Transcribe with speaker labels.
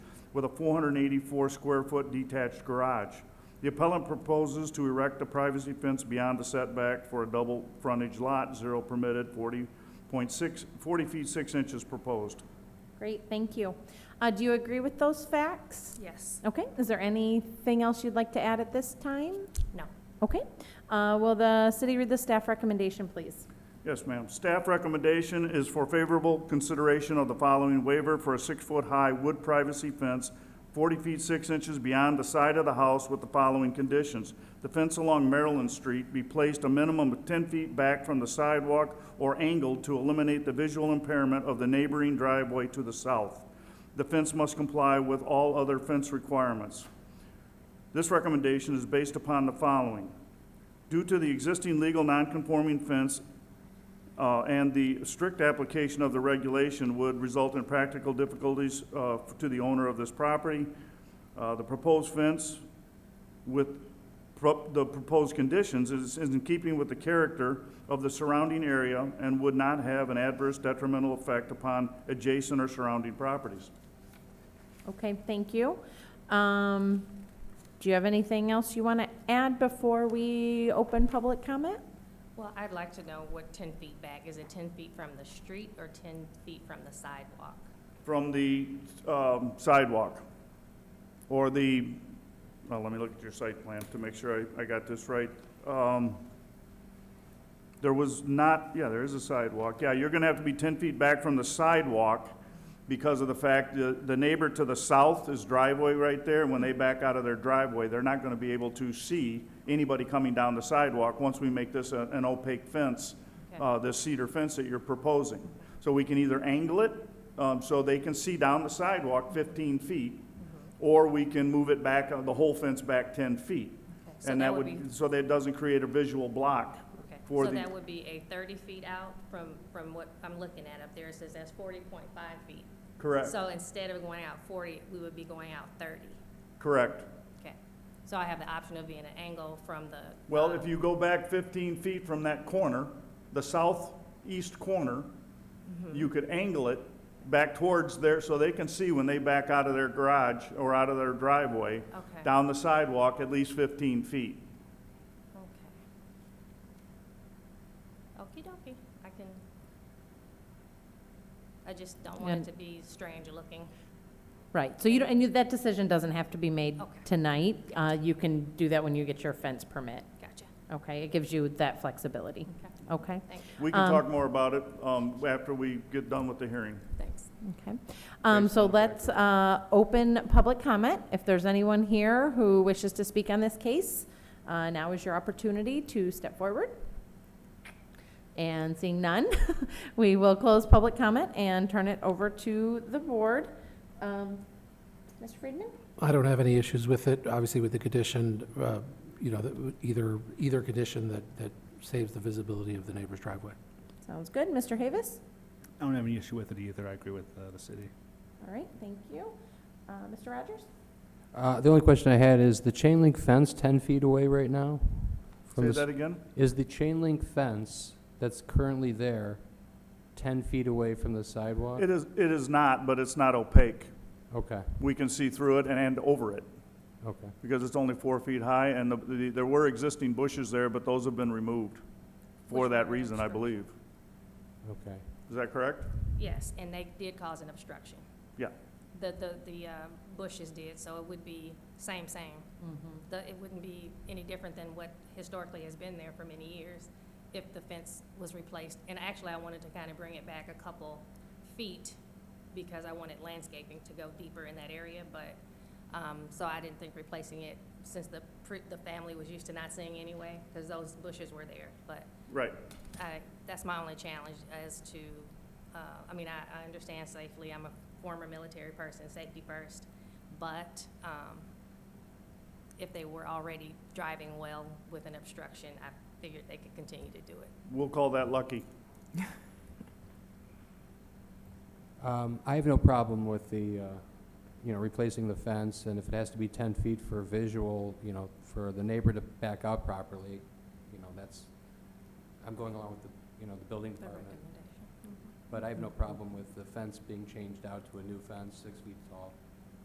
Speaker 1: with a 484-square-foot detached garage. The appellant proposes to erect a privacy fence beyond the setback for a double frontage lot, zero permitted, 40.6, 40 feet 6 inches proposed.
Speaker 2: Great, thank you. Uh, do you agree with those facts?
Speaker 3: Yes.
Speaker 2: Okay, is there anything else you'd like to add at this time?
Speaker 3: No.
Speaker 2: Okay, uh, will the city read the staff recommendation, please?
Speaker 1: Yes, ma'am. Staff recommendation is for favorable consideration of the following waiver for a six-foot-high wood privacy fence, 40 feet 6 inches beyond the side of the house with the following conditions. The fence along Maryland Street be placed a minimum of 10 feet back from the sidewalk or angled to eliminate the visual impairment of the neighboring driveway to the south. The fence must comply with all other fence requirements. This recommendation is based upon the following. Due to the existing legal nonconforming fence uh, and the strict application of the regulation would result in practical difficulties uh, to the owner of this property. Uh, The proposed fence with pro- the proposed conditions is is in keeping with the character of the surrounding area and would not have an adverse detrimental effect upon adjacent or surrounding properties.
Speaker 2: Okay, thank you. Um, do you have anything else you want to add before we open public comment?
Speaker 3: Well, I'd like to know what 10 feet back, is it 10 feet from the street or 10 feet from the sidewalk?
Speaker 1: From the um, sidewalk or the, well, let me look at your site plan to make sure I I got this right. Um, There was not, yeah, there is a sidewalk. Yeah, you're going to have to be 10 feet back from the sidewalk because of the fact that the neighbor to the south is driveway right there. When they back out of their driveway, they're not going to be able to see anybody coming down the sidewalk once we make this a- an opaque fence,
Speaker 3: Okay.
Speaker 1: uh, this cedar fence that you're proposing. So we can either angle it um, so they can see down the sidewalk 15 feet,
Speaker 3: Mm-hmm.
Speaker 1: or we can move it back, uh, the whole fence back 10 feet.
Speaker 3: Okay, so
Speaker 1: And that would,
Speaker 3: be-
Speaker 1: so that doesn't create a visual block
Speaker 3: okay,
Speaker 1: for
Speaker 3: So
Speaker 1: the-
Speaker 3: that would be a 30 feet out from, from what I'm looking at up there, it says that's 40.5 feet.
Speaker 1: Correct,
Speaker 3: So instead of going out 40, we would be going out 30.
Speaker 1: correct.
Speaker 3: Okay. So I have the option of being an angle from the.
Speaker 1: Well,
Speaker 3: um,
Speaker 1: if you go back 15 feet from that corner, the southeast corner, you could angle it back towards there so they can see when they back out of their garage or out of their driveway,
Speaker 3: Okay.
Speaker 1: down the sidewalk, at least 15 feet.
Speaker 3: Okay. Okey dokey, I can. I just don't want
Speaker 2: And-
Speaker 3: it to be strange looking.
Speaker 2: Right, so you don't, and you, that decision doesn't have to be made
Speaker 3: Okay.
Speaker 2: tonight. Uh, you can do that when you get your fence permit,
Speaker 3: Gotcha.
Speaker 2: okay? It gives you that flexibility,
Speaker 3: Okay,
Speaker 2: okay?
Speaker 3: thank,
Speaker 1: We can
Speaker 2: Um,
Speaker 1: talk more about it um, after we get done with the hearing.
Speaker 3: thanks.
Speaker 2: Okay, um,
Speaker 1: Based
Speaker 2: so
Speaker 1: on the
Speaker 2: let's, uh, open public comment. If there's anyone here who wishes to speak on this case, uh, now is your opportunity to step forward. And seeing none, we will close public comment and turn it over to the board. Um, Mr. Friedman?
Speaker 4: I don't have any issues with it, obviously with the condition, uh, you know, that w- either, either condition that, that saves the visibility of the neighbor's driveway.
Speaker 2: Sounds good. Mr. Havis?
Speaker 5: I don't have any issue with it either. I agree with uh, the city.
Speaker 2: All right, thank you. Uh, Mr. Rogers?
Speaker 6: Uh, The only question I had is the chain link fence 10 feet away right now? from
Speaker 1: Say
Speaker 6: the s-
Speaker 1: that again?
Speaker 6: Is the chain link fence that's currently there 10 feet away from the sidewalk?
Speaker 1: It is, it is not, but it's not opaque.
Speaker 6: Okay,
Speaker 1: We can see through it and- and over it,
Speaker 6: okay.
Speaker 1: because it's only four feet high, and the- the, there were existing bushes there, but those have been removed for
Speaker 3: Which
Speaker 1: that
Speaker 3: were an
Speaker 1: reason, I believe.
Speaker 3: obstruction.
Speaker 6: Okay.
Speaker 1: Is that correct?
Speaker 3: Yes, and they did cause an obstruction.
Speaker 1: Yeah.
Speaker 3: The, the, the uh, bushes did, so it would be same, same. The, it wouldn't be any different than what historically has been there for many years if the fence was replaced. And actually, I wanted to kind of bring it back a couple feet because I wanted landscaping to go deeper in that area, but, um, so I didn't think replacing it since the, pre- the family was used to not seeing anyway, because those bushes were there, but
Speaker 1: Right.
Speaker 3: I, that's my only challenge as to, uh, I mean, I, I understand safely, I'm a former military person, safety first, but, um, if they were already driving well with an obstruction, I figured they could continue to do it.
Speaker 1: We'll call that lucky.
Speaker 6: Um, I have no problem with the, uh, you know, replacing the fence, and if it has to be 10 feet for visual, you know, for the neighbor to back out properly, you know, that's, I'm going along with the, you know, the building department. But I have no problem with the fence being changed out to a new fence, six feet tall.